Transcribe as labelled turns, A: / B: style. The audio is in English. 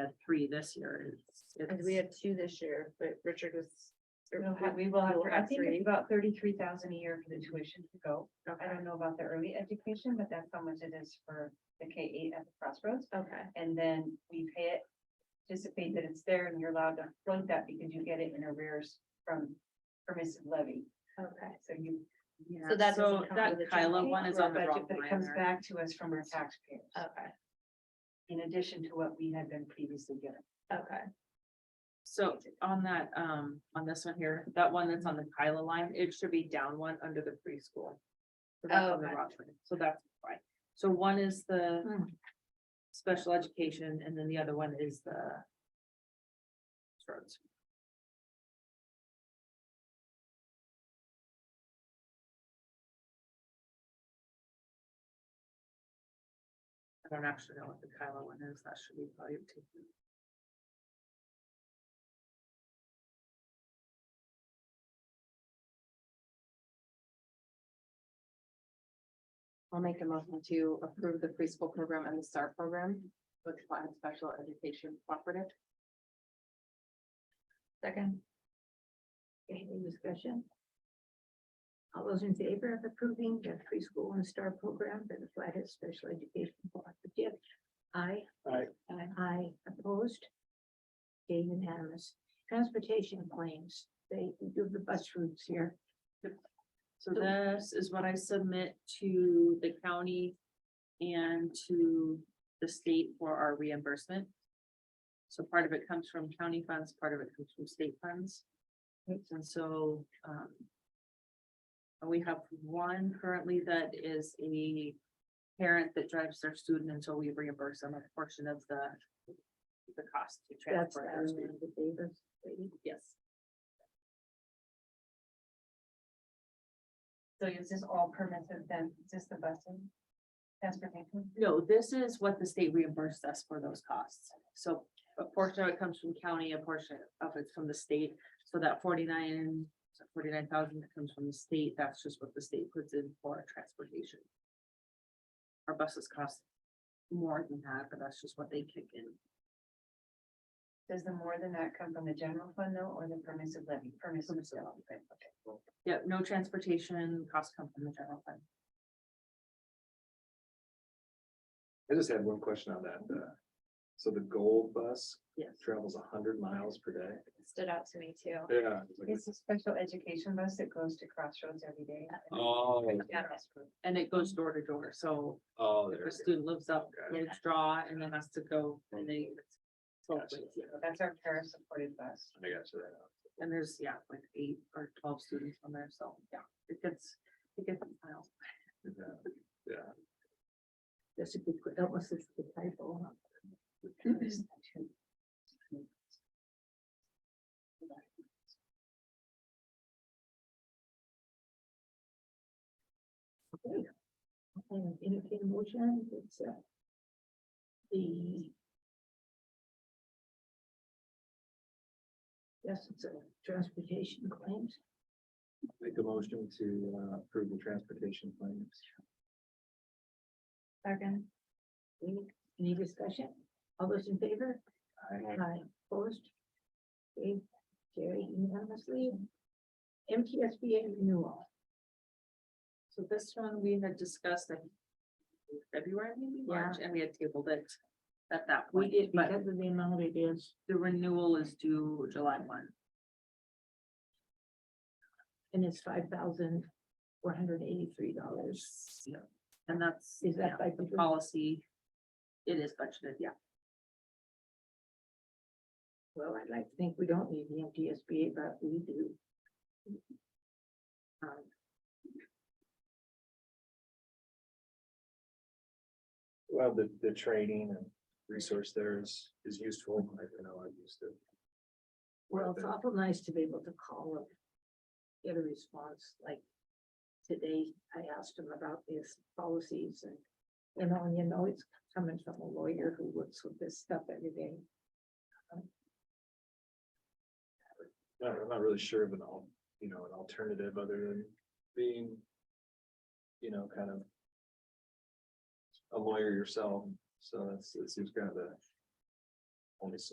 A: had three this year. It's-
B: And
A: it's-
B: we had two this year, but Richard was. or
C: We'll have-
B: we-
C: We will have,
B: we'll
C: I
B: have
C: think
B: three.
C: it's about thirty-three thousand a year for the tuition to go. I
B: Okay,
C: don't know about the early education, but that's how much it is for the K eight at the crossroads.
B: okay,
C: And then we pay it, anticipate that it's there and you're allowed to float that because you get it in arrears from permissive levy.
B: okay.
C: So you.
A: Yeah,
B: so that
A: So
B: doesn't count
A: that
B: with the
A: Kyla
B: general
A: one is
C: for our
A: on the
C: budget,
A: wrong
C: But it
A: line
C: comes
A: there.
C: back to us from our taxpayers,
B: Okay,
C: in addition to what we had been previously getting.
B: okay,
A: So on that, um, on this one here, that one that's on the Kyla line, it should be down one under the preschool. So that's
B: Oh,
A: on the
B: okay.
A: wrong one. So that's fine. So one is the
C: Hmm.
A: special education and then the other one is the roads. I don't actually know what the Kyla one is. That should be probably taken.
D: I'll make a motion to approve the preschool program and the STAR program with Platte Special Education Cooperative.
B: second,
E: Any discussion? All those in favor of approving the preschool and star program for the Flathead Special Education Cooperative? Aye.
F: Aye.
E: Aye. Aye, opposed? Okay, unanimous. Transportation claims, they do the bus routes here.
A: So this is what I submit to the county and to the state for our reimbursement. So part of it comes from county funds, part of it comes from state funds. And so, um. We have one currently that is a parent that drives their student until we reimburse them a portion of the. The cost to
E: That's
A: transfer. their
E: uh,
A: student.
E: the Davis lady.
A: Yes,
C: So is this all permissive then? Is this the busing? Transportation?
A: no, this is what the state reimbursed us for those costs. So a portion of it comes from county, a portion of it's from the state. So that forty-nine, forty-nine thousand that comes from the state, that's just what the state puts in for transportation. Our buses cost more than that, but that's just what they kick in.
C: Does the more than that come from the general fund though, or the permissive levy? Permissive levy. right, okay, cool.
A: Yeah, no transportation costs come from the general fund.
F: I just had one question on that. uh, So the gold bus
A: Yes.
F: travels hundred miles per day?
B: stood out to me too.
F: Yeah. it's like-
C: It's a special education bus that goes to Crossroads every day.
F: Oh,
B: Yeah.
A: And it goes door to door, so
F: oh,
A: if
F: there.
A: a student lives up,
F: Okay.
A: they draw and then has to go and they.
F: Gotcha.
C: That's our para-supported bus.
F: I got you there.
A: And there's, yeah, like eight or twelve students on there, so, yeah, it gets, it gets miles.
F: Yeah, Yeah,
E: That's a good, that was a typo. huh?
A: Mm-hmm.
E: Okay. And entertain a motion, it's uh, the yes, it's a transportation claims.
F: make a motion to uh, approve the transportation claims.
C: Second.
E: Any, any discussion? All those in favor?
F: I
E: Aye. Opposed? Okay, carried unanimously. MTSBA renewal.
A: So this one we had discussed in February, maybe March, and we had tabled it at that
E: We
A: point,
E: did
A: but
E: because of the amount it is,
A: the renewal is due July one.
E: and it's five thousand four hundred eighty-three dollars.
A: Yeah. And that's.
E: Is that
A: yeah,
E: by
A: the
E: budget?
A: policy? It is budgeted, yeah.
E: Well, I'd like to think we don't need the MTSBA, but we do.
A: Um,
F: Well, the, the training and resource there is, is useful. I I know I'm used to. it.
E: Well, it's awful nice to be able to call and get a response, like today I asked him about these policies and, you know, and you know, it's coming from a lawyer who works with this stuff every day.
F: Not, I'm not really sure of an al, you know, an alternative other than being, you know, kind of a lawyer yourself. So that's, it seems kind of the only so